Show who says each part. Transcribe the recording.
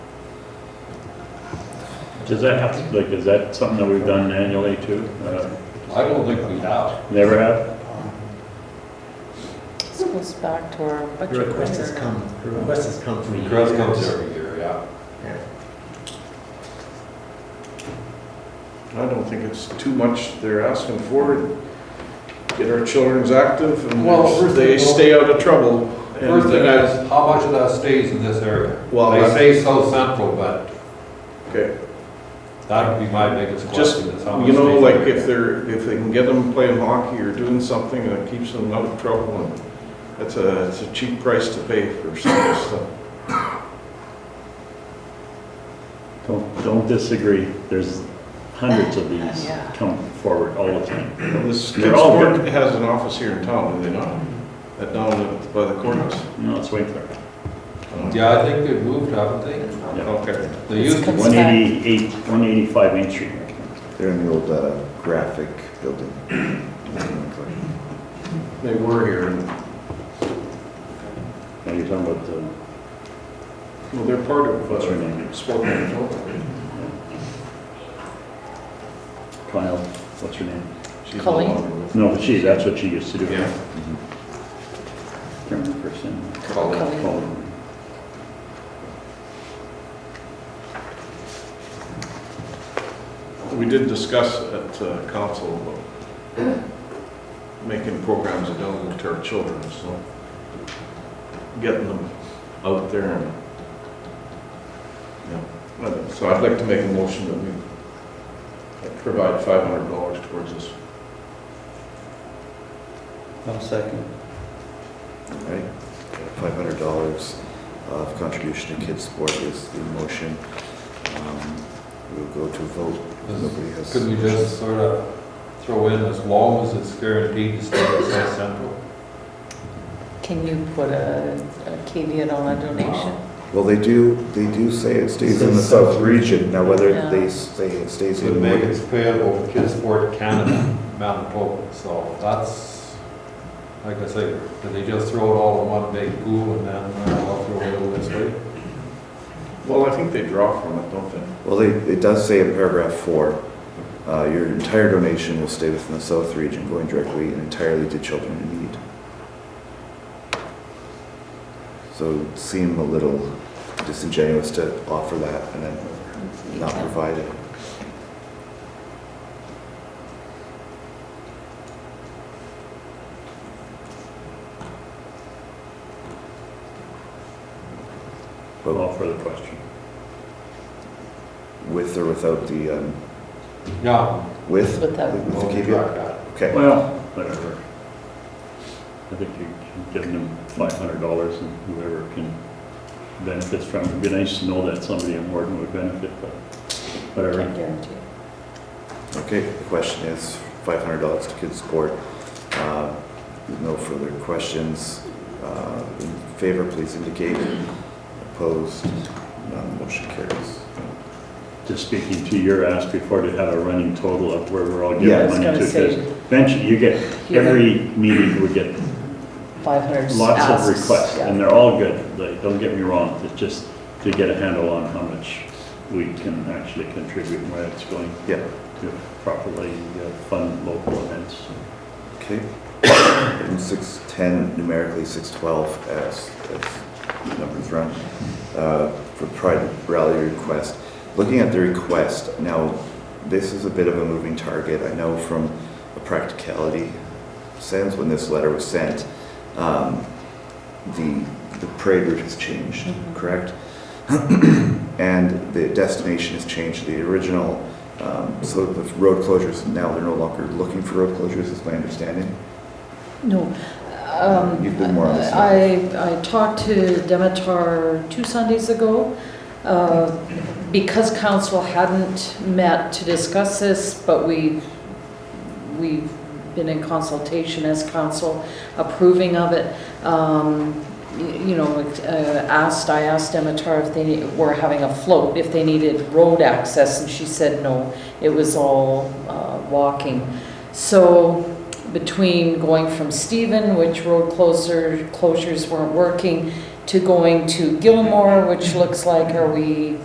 Speaker 1: Does that have, like, is that something that we've done annually too? Uh,
Speaker 2: I don't think we have.
Speaker 1: Never have?
Speaker 3: This goes back to our budget.
Speaker 4: The request has come, the request has come from.
Speaker 2: Request comes every year, yeah.
Speaker 5: I don't think it's too much they're asking for. Get our children's active
Speaker 2: Well,
Speaker 5: and
Speaker 2: first
Speaker 5: they
Speaker 2: of all-
Speaker 5: stay out of trouble.
Speaker 2: First thing
Speaker 5: And-
Speaker 2: is, how much of that stays in this area?
Speaker 5: Well,
Speaker 2: They
Speaker 5: Oh, that's-
Speaker 2: say South Central, but
Speaker 5: Okay,
Speaker 2: that would be my biggest
Speaker 5: just,
Speaker 2: question is how much.
Speaker 5: you know,
Speaker 2: stays in
Speaker 5: like
Speaker 2: the area.
Speaker 5: if they're, if they can get them playing hockey or doing something that keeps them out of trouble and it's a, it's a cheap price to pay for some of this stuff.
Speaker 1: Don't, don't disagree. There's hundreds of these
Speaker 3: Uh, Yeah.
Speaker 1: come forward all the time.
Speaker 5: This
Speaker 1: They're
Speaker 5: Kids
Speaker 1: all
Speaker 5: Court
Speaker 1: good.
Speaker 5: has an office here in town, do they not? That down at- by the courthouse.
Speaker 1: No, it's Winkler.
Speaker 2: Yeah, I think they've moved, haven't they?
Speaker 5: Okay.
Speaker 2: They used to,
Speaker 3: It's
Speaker 1: One eighty-eight, one eighty-five Main Street.
Speaker 6: They're in the old uh, graphic building.
Speaker 5: They were here and
Speaker 1: Now you're talking about the,
Speaker 5: Well, they're part of,
Speaker 1: what's her
Speaker 5: uh,
Speaker 1: name?
Speaker 5: Spokane, Joe.
Speaker 1: Kyle, what's her name?
Speaker 5: She's no
Speaker 3: Colleen?
Speaker 5: longer with
Speaker 1: No, but she, that's what she used to do.
Speaker 5: Yeah.
Speaker 1: Can't remember her name.
Speaker 5: Colleen.
Speaker 3: Colleen.
Speaker 1: Call her.
Speaker 5: We did discuss at uh, council about making programs available to our children, so getting them out there and, yeah. Uh, So I'd like to make a motion that we provide five hundred dollars towards this.
Speaker 4: One second.
Speaker 6: Right? Five hundred dollars of contribution to kids' sport is the motion. Um, We'll go to vote. Nobody has-
Speaker 2: could we just sort of throw in as long as it's guaranteed to stay in South Central?
Speaker 3: Can you put a a caveat on a donation?
Speaker 6: Well, they do, they do say it stays in the south region. Now, whether they say it stays
Speaker 2: To
Speaker 6: in
Speaker 2: make
Speaker 6: Oregon.
Speaker 2: it payable to Kidsport Canada, Manitoba, so that's, like I say, did they just throw it all in one big pool and then uh, I'll throw it over this way?
Speaker 5: Well, I think they draw from it, don't they?
Speaker 6: Well, they, it does say in paragraph four, uh, your entire donation will stay within the south region, going directly and entirely to children in need. So it seemed a little disingenuous to offer that and then not provide it.
Speaker 1: Call for the question.
Speaker 6: With or without the, um,
Speaker 2: Yeah.
Speaker 6: with?
Speaker 3: Without.
Speaker 6: With
Speaker 2: we'll
Speaker 6: the caveat?
Speaker 2: track that.
Speaker 6: Okay.
Speaker 1: Well, whatever. I think you can give them five hundred dollars and whoever can benefits from it. It'd be nice to know that somebody in Morton would benefit, but
Speaker 3: Can't
Speaker 1: whatever.
Speaker 3: guarantee.
Speaker 6: Okay, the question is five hundred dollars to kids' sport. Uh, No further questions. Uh, In favor, please indicate. Opposed? None. Motion carries.
Speaker 1: Just speaking to your ask before to have a running total of where we're all
Speaker 6: Yeah, I
Speaker 1: giving
Speaker 3: was
Speaker 1: money to.
Speaker 3: gonna say-
Speaker 1: Because eventually you get,
Speaker 3: You're gonna-
Speaker 1: every meeting would get
Speaker 3: 500
Speaker 1: lots
Speaker 3: asks,
Speaker 1: of requests
Speaker 3: yeah.
Speaker 1: and they're all good. Like, don't get me wrong, it's just to get a handle on how much we can actually contribute and where it's going
Speaker 6: Yeah,
Speaker 1: to properly uh, fund local events.
Speaker 6: okay. Item six ten, numerically six twelve, as, as numbers run, uh, for Pride Rally request. Looking at the request, now, this is a bit of a moving target. I know from a practicality sense, when this letter was sent, um, the, the parade route has changed, correct? And the destination has changed, the original, um, so the road closures, now they're no longer looking for road closures, is my understanding.
Speaker 7: No. um,
Speaker 6: You've been more on the side.
Speaker 7: I, I talked to Demitar two Sundays ago. uh, Because council hadn't met to discuss this, but we, we've been in consultation as council approving of it. um, y- You know, uh, asked, I asked Demitar if they ne- were having a float, if they needed road access, and she said no. It was all uh, walking. So between going from Stephen, which road closer, closures weren't working, to going to Gilmore, which looks like, are we